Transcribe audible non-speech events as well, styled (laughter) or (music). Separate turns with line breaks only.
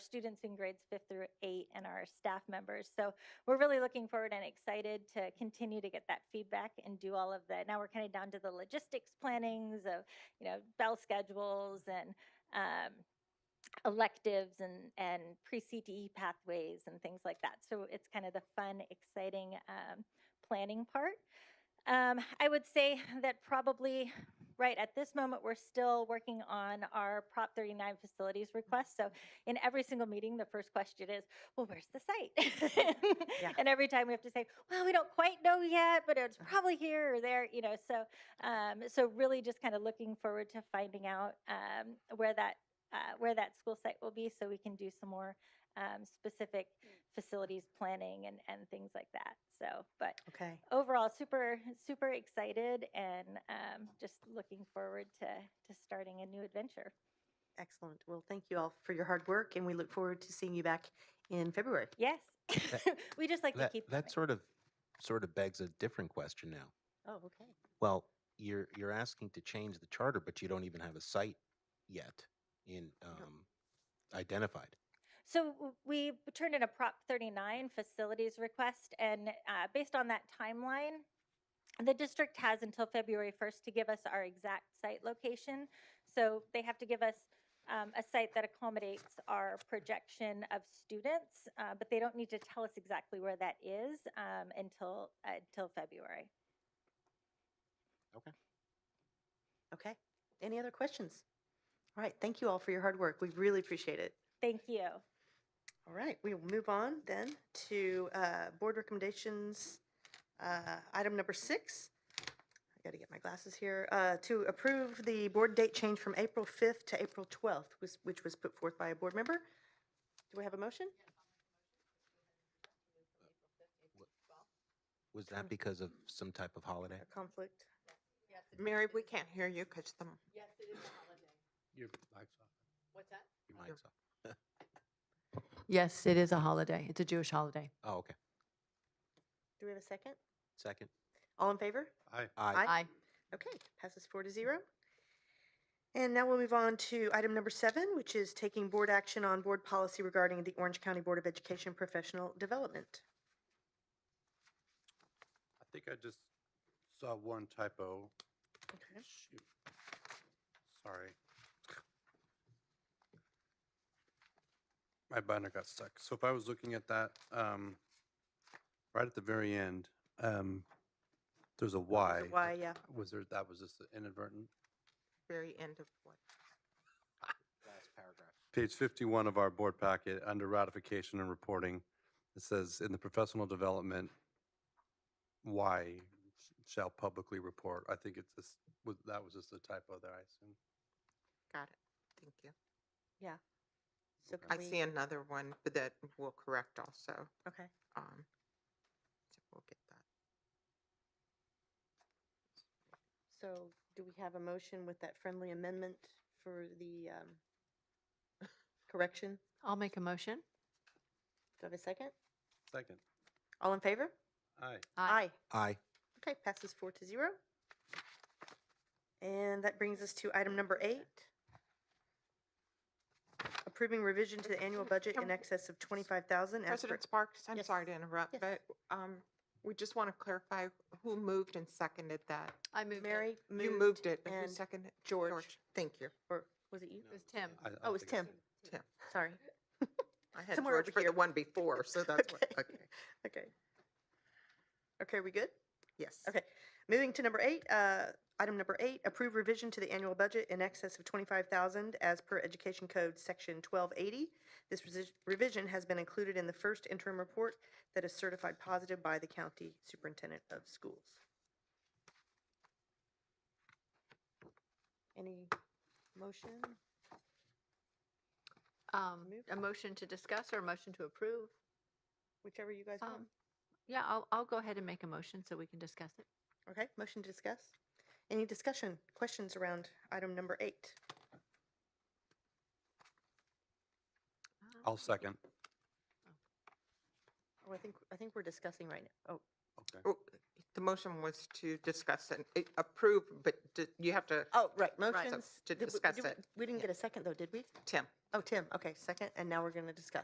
students in grades fifth through eight and our staff members. So we're really looking forward and excited to continue to get that feedback and do all of the, now we're kind of down to the logistics plannings of, you know, bell schedules and um, electives and, and pre-CTE pathways and things like that. So it's kind of the fun, exciting um, planning part. Um, I would say that probably, right, at this moment, we're still working on our Prop 39 facilities request. So in every single meeting, the first question is, well, where's the site? (laughs)
Yeah.
And every time we have to say, well, we don't quite know yet, but
Uh-huh.
it's probably here or there, you know, so, um, so really just kind of looking forward to finding out, um, where that, uh, where that school site will be so we can do some more, um, specific
Hmm.
facilities planning and, and things like that. So, but
Okay.
overall super super excited and um, just looking forward to to starting a new adventure
Excellent. Well, thank you all for your hard work, and we look forward to seeing you back in February.
yes (laughs) we just like to
That,
keep
that
going.
sort of sort of begs a different question now.
Oh, okay.
Well, you're you're asking to change the charter, but you don't even have a site yet in um, identified.
so w- we turned in a prop 39 facilities request and uh, based on that timeline the district has until february 1st to give us our exact site location so they have to give us um, a site that accommodates our projection of students, uh, but they don't need to tell us exactly where that is um, until uh, until February.
Okay. Any other questions? All right. Thank you all for your hard work. We really appreciate it.
Thank you.
All right. We will move on then to uh, board recommendations. Uh, item number six. I got to get my glasses here. Uh, to approve the board date change from April 5th to April 12th, was, which was put forth by a board member. Do we have a motion?
Was that because of some type of holiday?
A conflict?
Mary, we can't hear you because the,
Your mic's off.
Your mic's off.
Yes, it is a holiday. It's a Jewish holiday.
Oh, okay.
Do we have a second?
Second.
All in favor?
Aye.
I
Aye. Okay, passes four to zero. And now we'll move on to item number seven, which is taking board action on board policy regarding the Orange County Board of Education Professional Development.
I think I just saw one typo.
Okay.
Shoot. Sorry. My binder got stuck. So if I was looking at that, um, right at the very end, um, there's a Y.
There's a Y, yeah.
Was there, that was just inadvertent?
very end of what?
Last paragraph.
Page 51 of our board packet, under ratification and reporting, it says, "In the professional development, Y shall publicly report." I think it's this, was- that was just a typo there, I assume.
Got it. Thank you.
So
Okay.
can
I
we-
see another one but that we'll correct also.
Okay,
Um, so we'll get that.
so do we have a motion with that friendly amendment for the um, (laughs) correction?
I'll make a motion.
Do I have a second?
Second.
All in favor?
Aye.
Aye.
Okay, passes four to zero. And that brings us to item number eight. Approving revision to the annual budget in excess of twenty-five thousand.
President Sparks, I'm
Yes.
sorry to interrupt,
Yes.
but um, we just want to clarify who moved and seconded that.
I moved
Mary moved.
You moved it. Who
And,
seconded? it?
George.
Thank you,
or was it you?
It was Tim.
I- I
Oh, it's
think I
Tim.
said it.
Tim.
Sorry.
I had
Somewhere
George
over
for
here.
the one before,
(laughs)
so that's what, okay.
Okay. Okay, we good?
Yes.
Okay, moving to number eight, uh, item number eight, approve revision to the annual budget in excess of twenty-five thousand as per Education Code Section twelve eighty. This resi- revision has been included in the first interim report that is certified positive by the county superintendent of schools. Any motion?
Um,
Move.
a motion to discuss or a motion to approve.
Whichever you guys want.
Um, yeah, I'll, I'll go ahead and make a motion so we can discuss it.
Okay, motion to discuss? Any discussion, questions around item number eight?
Uh,
I'll second.
Oh, I think, I think we're discussing right now. Oh,
Okay.
Oh, The motion was to discuss and eh, approve, but d- you have to,
Oh, right,
Right.
motions.
To
Did we-
discuss
did we-
it.
We didn't
Yeah.
get a second, though, did we?
Tim,
Oh, Tim, okay, second, and now we're going to discuss.